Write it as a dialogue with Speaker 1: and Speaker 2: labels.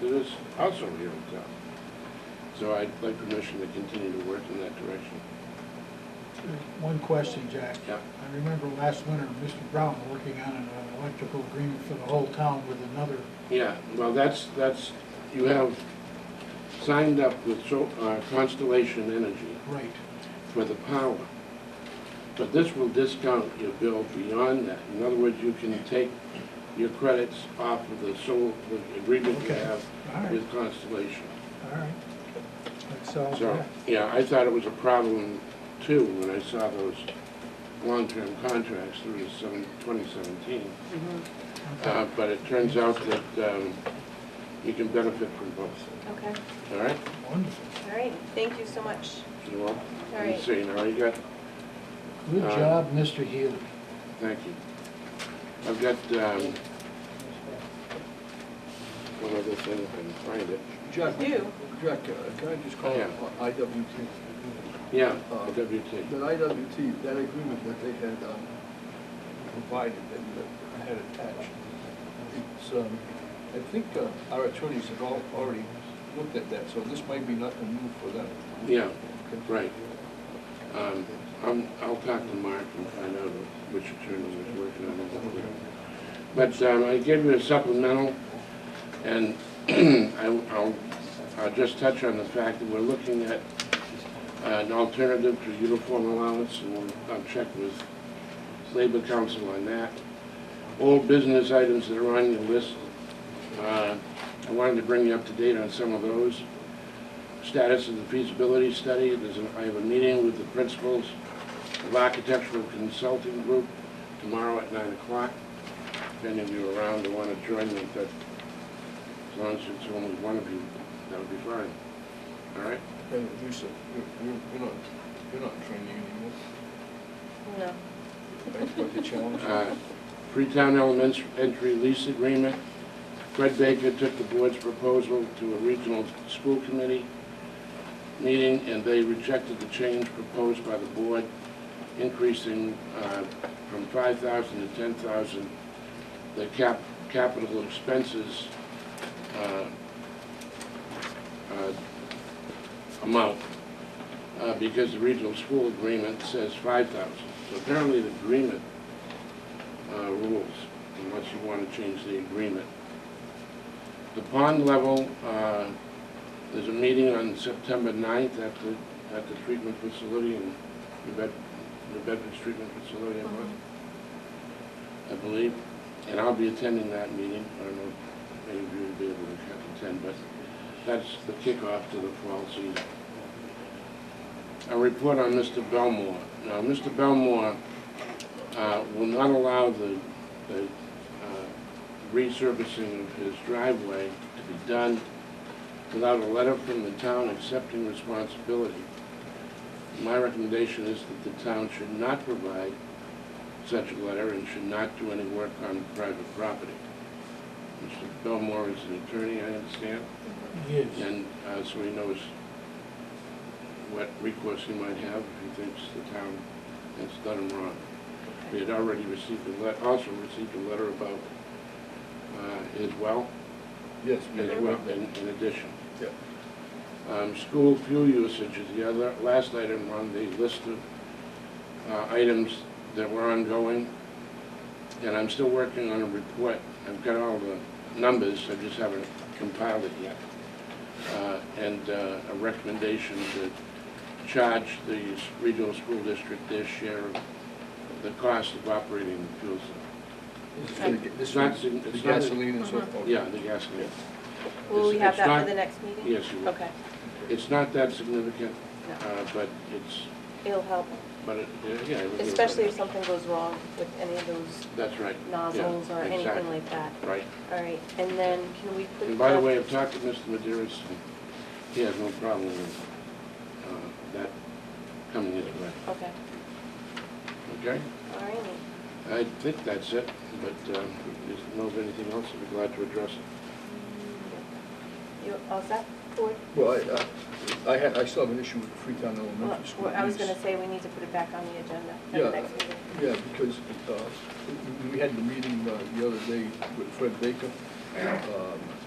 Speaker 1: that is also here in town. So I'd like permission to continue to work in that direction.
Speaker 2: One question, Jack.
Speaker 1: Yeah.
Speaker 2: I remember last winter, Mr. Brown working on an electrical agreement for the whole town with another,
Speaker 1: Yeah, well, that's, that's, you have signed up with Sol- uh, Constellation Energy
Speaker 2: right,
Speaker 1: for the power. But this will discount your bill beyond that. In other words, you can take your credits off of the solar, the agreement you
Speaker 2: Okay.
Speaker 1: have
Speaker 2: all right,
Speaker 1: with Constellation.
Speaker 2: all right. That solves
Speaker 1: So,
Speaker 2: that.
Speaker 1: yeah, I thought it was a problem too when I saw those long-term contracts through the seven- 2017.
Speaker 2: Okay.
Speaker 1: Uh, But it turns out that um, you can benefit from both,
Speaker 3: Okay,
Speaker 1: all right?
Speaker 2: Wonderful.
Speaker 3: all right, thank you so much.
Speaker 1: You all,
Speaker 3: All
Speaker 1: you
Speaker 3: right.
Speaker 1: see, now you got,
Speaker 2: Good
Speaker 1: Uh,
Speaker 2: job, Mr. Healy.
Speaker 1: thank you. I've got um, one other thing, if I can find it.
Speaker 4: Jack,
Speaker 3: You.
Speaker 4: Jack, uh, can I just call
Speaker 1: Yeah.
Speaker 4: it IWT?
Speaker 1: Yeah,
Speaker 4: Uh,
Speaker 1: the WT.
Speaker 4: That IWT, that agreement that they had um, provided and that I had attached, it's, um, I think uh, our attorneys have all already looked at that, so this might be nothing new for them.
Speaker 1: Yeah,
Speaker 4: Okay.
Speaker 1: right. Um, I'm- I'll talk to Mark and find out which attorney was working on it. But um, I gave you a supplemental, and I- I'll I'll just touch on the fact that we're looking at an alternative to uniform allowance, and we'll- I'll check with Labor Council on that. All business items that are on your list, uh, I wanted to bring you up to date on some of those status of the feasibility study. There's, a- I have a meeting with the principals of Architectural Consulting Group tomorrow at nine o'clock. If any of you are around and want to join me, but as long as it's only one of you, that would be fine. All right?
Speaker 4: Hey, Lisa, you're, you're- you're not, you're not training anymore,
Speaker 3: No.
Speaker 4: right, for the challenge?
Speaker 1: Uh, Freetown Elementary lease agreement. Fred Baker took the board's proposal to a regional school committee meeting, and they rejected the change proposed by the board, increasing uh, from 5,000 to 10,000 the cap, capital expenses uh, uh, amount, uh, because the regional school agreement says 5,000. So apparently the agreement uh, rules, unless you want to change the agreement. The pond level, uh, there's a meeting on September 9th at the, at the treatment facility in New Bed- New Bedford's treatment facility, I believe. I believe, and I'll be attending that meeting. I don't know if any of you will be able to attend, but that's the kickoff to the fall season. A report on Mr. Belmore. Now, Mr. Belmore uh, will not allow the, the uh, resurfacing of his driveway to be done without a letter from the town accepting responsibility. My recommendation is that the town should not provide such a letter and should not do any work on private property. Mr. Belmore is an attorney, I understand,
Speaker 2: Yes.
Speaker 1: and uh, so he knows what recourse he might have if he thinks the town has done him wrong. We had already received a let, also received a letter about uh, his well,
Speaker 4: Yes, we
Speaker 1: as well, in in addition.
Speaker 4: Yeah.
Speaker 1: Um, School fuel usage is the other, last item on the list of uh, items that were ongoing. And I'm still working on a report. I've got all the numbers, I just haven't compiled it yet. Uh, And uh, a recommendation to charge the s- regional school district their share of the cost of operating the fuel. cell.
Speaker 4: This is for the ga- this is
Speaker 1: It's not
Speaker 4: for
Speaker 1: sign-
Speaker 4: the
Speaker 1: it's not-
Speaker 4: gasoline and so forth.
Speaker 1: Yeah, the gasoline.
Speaker 3: Will we have
Speaker 1: It's- it's
Speaker 3: that
Speaker 1: not-
Speaker 3: for the next meeting?
Speaker 1: Yes, you will.
Speaker 3: Okay,
Speaker 1: It's not that significant,
Speaker 3: no,
Speaker 1: uh, but it's,
Speaker 3: it'll help,
Speaker 1: but it, yeah. it would be-
Speaker 3: especially if something goes wrong with any of those
Speaker 1: That's right.
Speaker 3: nozzles
Speaker 1: Yeah,
Speaker 3: or anything
Speaker 1: exactly.
Speaker 3: like that.
Speaker 1: Right.
Speaker 3: All right, and then can we put?
Speaker 1: And by the way, I've talked to Mr. Maderas, and he has no problem with uh, that coming his way,
Speaker 3: Okay, Oh.
Speaker 1: okay?
Speaker 3: all righty.
Speaker 1: I think that's it, but um, if you know of anything else, I'd be glad to address it.
Speaker 3: You all set, board?
Speaker 4: Well, I, I, I had, I still have an issue with Freetown
Speaker 3: Well,
Speaker 4: Elementary School.
Speaker 3: I was
Speaker 4: lease.
Speaker 3: gonna say, we need to put it back on the agenda for
Speaker 4: Yeah.
Speaker 3: the next meeting.
Speaker 4: Yeah, because uh, we- we had the meeting uh, the other day with Fred Baker. Um,